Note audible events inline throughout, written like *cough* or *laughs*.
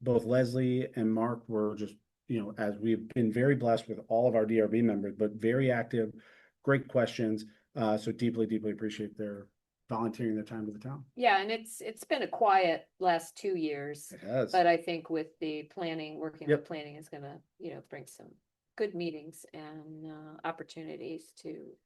both Leslie and Mark were just, you know, as we've been very blessed with all of our DRB members, but very active, great questions. Uh, so deeply, deeply appreciate their volunteering their time to the town. Yeah, and it's, it's been a quiet last two years, It has. uh, but I think with the planning, working with Yep. planning is gonna, you know, bring some good meetings and, uh, opportunities to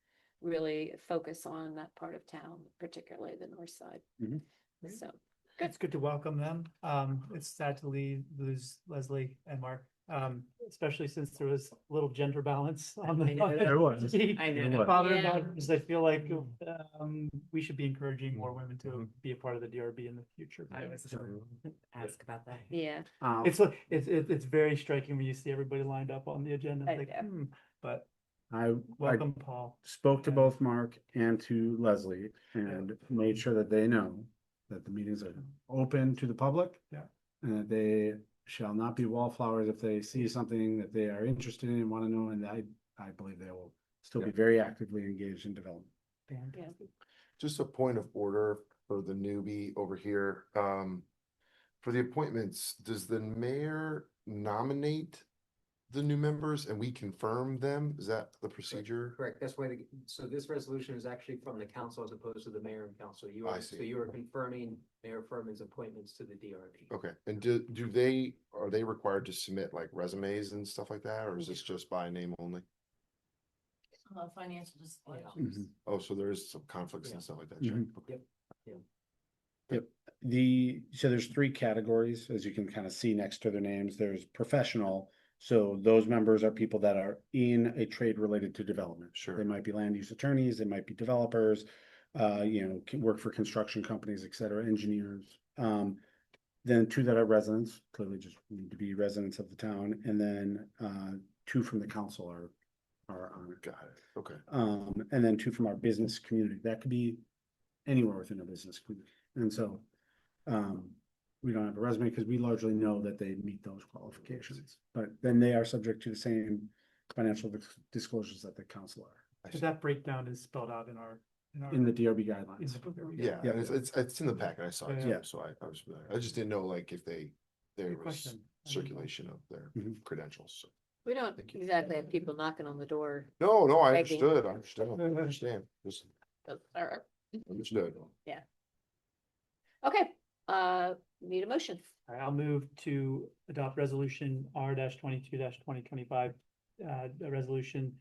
really focus on that part of town, particularly the north side. Mhm. Great. So, Good. It's good to welcome them. Um, it's sad to leave, lose Leslie and Mark, um, especially since there was little gender balance *laughs* on I know. the. There was. I know. Father and Yeah. daughters, I feel like, um, we should be encouraging more women to be a part of the DRB in the future. I was gonna ask about that. yeah, Um, It's, like- it's, it's, it's very striking when you see everybody lined up on the agenda, I it's like, know. hmm, but I, I welcome, Paul. spoke to Yeah. both Mark and to Leslie and made sure that they know that the meetings are open to the public. Yeah. And that they shall not be wallflowers if they see something that they are interested in and want to know, and I, I believe they will still be very actively engaged in development. Fantastic. Just a point of order for the newbie over here. Um, for the appointments, does the mayor nominate the new members and we confirm them? Is that the procedure? Correct, that's why, the- so this resolution is actually from the council as opposed to the mayor and council. You I are, so see. you are confirming Mayor Furman's appointments to the DRB. Okay, and do, do they, are they required to submit like resumes and stuff like that, or is this just by name only? Uh, financial Mhm. disclosures. Oh, so there is some conflicts and stuff like that. sure. Mhm. Okay. The, so there's three categories, as you can kind of see next to their names, there's professional. So those members are people that are in a trade related to development. Sure. They might be land use attorneys, they might be developers, uh, you know, can work for construction companies, et cetera, engineers. Um, then two that are residents, clearly just need to be residents of the town, and then, uh, two from the council are, are on it. Got it, okay. Um, and then two from our business community. That could be anywhere within a business community. And so, um, we don't have a resume because we largely know that they meet those qualifications. But then they are subject to the same financial dis- disclosures that the council are I So see. that breakdown is spelled out in our, in our. in the DRB in guidelines. the- Yeah, Yeah. and it's, it's, it's in the packet, I saw it, Yeah. too, so I, I was, familiar. I just didn't know like if they, there Good was question. I didn't know. circulation of their Mhm. credentials, so. we don't Thank you. exactly have people knocking on the door. No, no, I Begging. understood, I understand, I understand, just but- or- understood. Okay, uh, need a motion. All right, I'll move to adopt resolution R twenty-two twenty twenty-five, uh, a resolution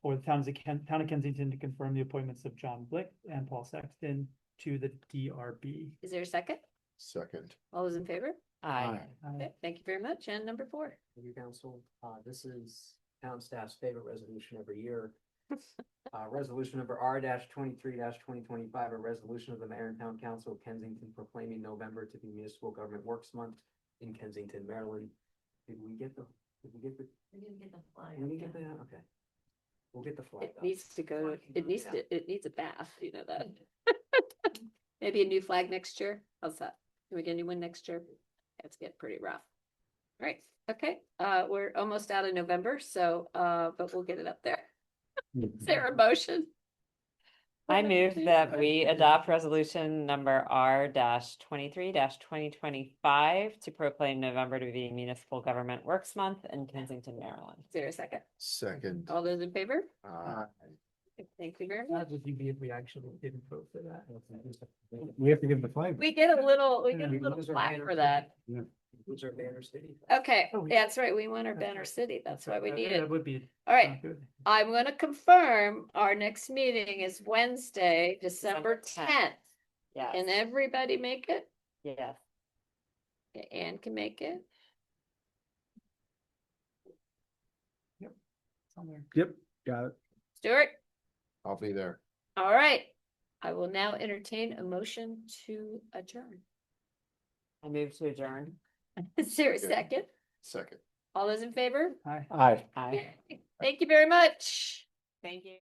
for the towns of Ken, town of Kensington to confirm the appointments of John Blick and Paul Sexton to the DRB. Is there a second? Second, All those in favor? Aye. Uh, Okay, thank you very much. And number four. Thank you, council. Uh, this is town staff's favorite resolution every *laughs* year. Uh, resolution number R twenty-three twenty twenty-five, a resolution of the mayor and town council of Kensington proclaiming November to be municipal government works month in Kensington, Maryland. Did we get the, did we get the, We didn't get the flyer. did we get that? Okay. We'll get the flag. It needs to go, it needs Yeah. to, it needs a bath, you know that. *laughs* Maybe a new flag next year. How's that? Can we get a new one next year? That's getting pretty rough. All right, okay, uh, we're almost out of November, so, uh, but we'll get it *laughs* up there. Is there a motion? I move that we adopt resolution number R twenty-three twenty twenty-five to proclaim November to be Municipal Government Works Month in Kensington, Maryland. Is there a second? second. Uh, All those in favor? Aye. Thank you very much. How would you be if we actually didn't vote for that? We have to give the flag. We get a little, we get a Yeah, little Those are flag banner for city. that. Yeah. Those are banner city. Okay, Oh, we- that's right. We want our That's banner right. city. That's why we Uh, need yeah, it. That would be. All right, not good. I'm gonna confirm our next meeting is Wednesday, December December tenth. 10th. Can Yes, everybody make it? yes. Okay, Anne can make it. Somewhere. Yep, got it. Stuart, I'll be there. all right. I will now entertain a motion to adjourn. *laughs* I move to adjourn. Is there a Good. second? Second. All those in favor? Hi. Aye. Aye. Thank you very much. Thank you.